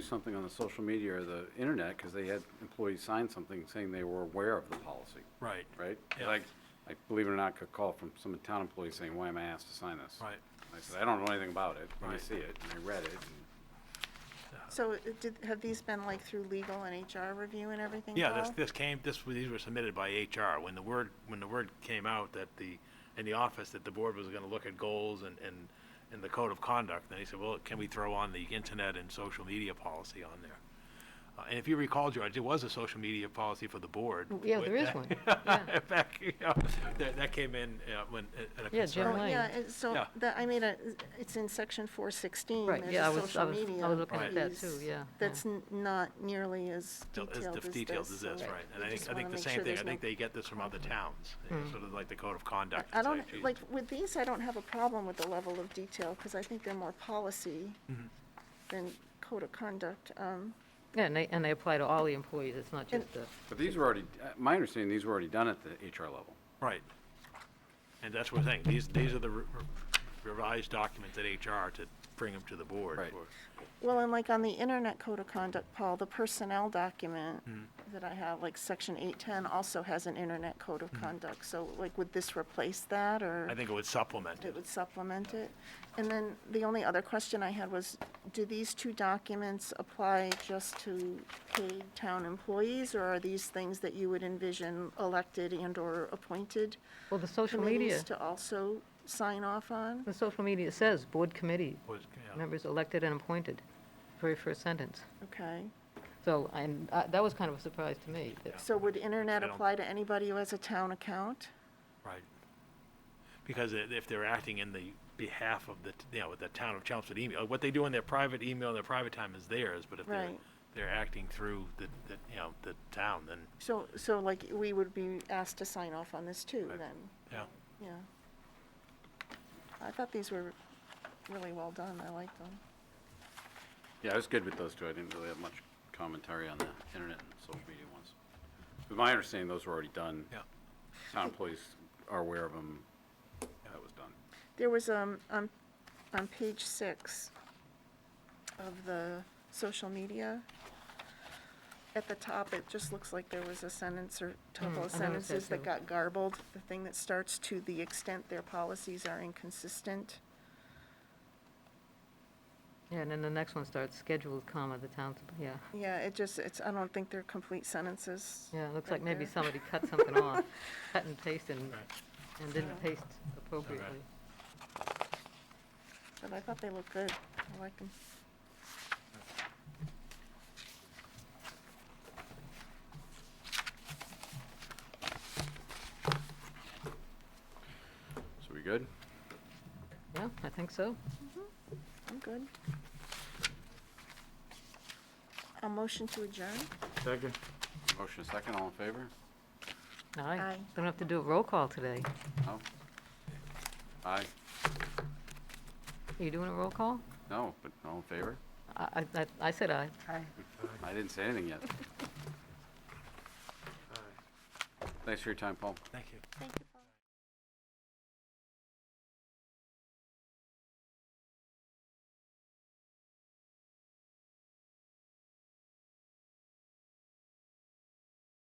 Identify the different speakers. Speaker 1: do something on the social media or the internet, because they had employees sign something saying they were aware of the policy,
Speaker 2: Right,
Speaker 1: right?
Speaker 2: Yeah.
Speaker 1: Like, I believe it or not, got a call from some town employee saying, why am I asked to sign this?
Speaker 2: right.
Speaker 1: I said, I don't know anything about it, and I
Speaker 2: Right.
Speaker 1: see it, and I read it, and
Speaker 3: So it did, have these been like through legal and HR review and everything,
Speaker 2: Yeah, this,
Speaker 3: Paul?
Speaker 2: this came, this, these were submitted by HR. When the word, when the word came out that the, in the office, that the board was gonna look at goals and, and, and the code of conduct, then he said, well, can we throw on the internet and social media policy on there? Uh, And if you recall, George, there was a social media policy for the board.
Speaker 3: Mm,
Speaker 4: Yeah,
Speaker 2: with
Speaker 4: there is
Speaker 2: that-
Speaker 4: one.
Speaker 2: Back, you know, that, that came in, uh, when, at a
Speaker 4: Yeah, Jim
Speaker 2: concern.
Speaker 4: Lang.
Speaker 3: Oh, yeah, it- so
Speaker 2: Yeah.
Speaker 3: that, I made a, it's in section four sixteen,
Speaker 4: Right,
Speaker 3: there's
Speaker 4: yeah, I
Speaker 3: a
Speaker 4: was- I
Speaker 3: social
Speaker 4: was- I
Speaker 3: media.
Speaker 4: was looking
Speaker 2: at
Speaker 4: that
Speaker 3: piece
Speaker 4: too, yeah, yeah.
Speaker 3: That's n- not nearly as
Speaker 2: Del-
Speaker 3: detailed
Speaker 2: as
Speaker 3: as
Speaker 2: def-
Speaker 3: this.
Speaker 2: details as
Speaker 3: so
Speaker 2: this, right, and
Speaker 3: we
Speaker 2: I think,
Speaker 3: just
Speaker 2: I think
Speaker 3: wanna
Speaker 2: the
Speaker 3: make
Speaker 2: same
Speaker 3: sure
Speaker 2: thing,
Speaker 3: there's
Speaker 2: I think
Speaker 3: no-
Speaker 2: they get this from other towns, you know, sort of like the code of
Speaker 3: I-
Speaker 2: conduct.
Speaker 3: I
Speaker 2: It's like,
Speaker 3: don't,
Speaker 2: geez,
Speaker 3: like, with these, I don't have a problem with the level of detail, because I think they're more policy
Speaker 2: Mm-hmm.
Speaker 3: than code of conduct, um,
Speaker 4: Yeah, and they, and they apply to all the employees, it's not just the,
Speaker 1: but these were already, uh, my understanding, these were already done at the HR level.
Speaker 2: Right. And that's what we're saying, these, these are the re- revised documents at HR to bring them to the board.
Speaker 1: Right.
Speaker 2: for-
Speaker 3: Well, and like on the internet code of conduct, Paul, the personnel document
Speaker 2: Hmm.
Speaker 3: that I have, like section eight ten also has an internet code of conduct. So like, would this replace that
Speaker 2: Hmm. I
Speaker 3: or
Speaker 2: think it would supplement
Speaker 3: it
Speaker 2: it.
Speaker 3: would supplement it? And then the only other question I had was, do these two documents apply just to paid town employees? Or are these things that you would envision elected and or appointed
Speaker 4: well, the social media,
Speaker 3: committees to also sign off on?
Speaker 4: the social media says board committee,
Speaker 2: Was- yeah.
Speaker 4: members elected and appointed, very first sentence.
Speaker 3: Okay.
Speaker 4: So, and uh, that was kind of a surprise to me. that-
Speaker 3: So would
Speaker 2: I
Speaker 3: internet
Speaker 2: don't-
Speaker 3: apply to anybody who has a town account?
Speaker 2: Right. Because i- if they're acting in the behalf of the, t- you know, the town of Chelmsford email, what they do in their private email, in their private time is theirs, but if they're,
Speaker 3: Right.
Speaker 2: they're acting through the, the, you know, the town, then,
Speaker 3: So, so like, we would be asked to sign off on this too, then,
Speaker 2: yeah.
Speaker 3: yeah. I thought these were really well done, I liked them.
Speaker 1: Yeah, I was good with those two, I didn't really have much commentary on the internet and social media ones. But my understanding, those were already done.
Speaker 2: Yeah.
Speaker 1: Town employees are aware of them, that was done.
Speaker 3: There was, um, on, on page six of the social media, at the top, it just looks like there was a sentence or couple of
Speaker 4: Mm, I noticed that
Speaker 3: sentences that
Speaker 4: too.
Speaker 3: got garbled. The thing that starts, to the extent their policies are inconsistent.
Speaker 4: Yeah, and then the next one starts scheduled, comma, the town's, yeah.
Speaker 3: Yeah, it just, it's, I don't think they're complete sentences.
Speaker 4: Yeah, it looks
Speaker 3: right
Speaker 4: like maybe
Speaker 3: there.
Speaker 4: somebody cut something off, cut and pasted, and-
Speaker 2: Right.
Speaker 4: and didn't paste appropriately.
Speaker 3: But I thought they looked good. I like them.
Speaker 1: So we good?
Speaker 4: Yeah, I think so.
Speaker 3: I'm good. A motion to adjourn?
Speaker 5: Second.
Speaker 1: Motion second, all in favor?
Speaker 4: Aye.
Speaker 3: Aye.
Speaker 4: Don't have to do a roll call today.
Speaker 1: No? Aye?
Speaker 4: Are you doing a roll call?
Speaker 1: No, but all in favor?
Speaker 4: I, I- I- I said aye.
Speaker 3: Aye.
Speaker 1: I didn't say anything yet.
Speaker 5: Aye.
Speaker 1: Thanks for your time, Paul.
Speaker 2: Thank you.
Speaker 3: Thank you, Paul.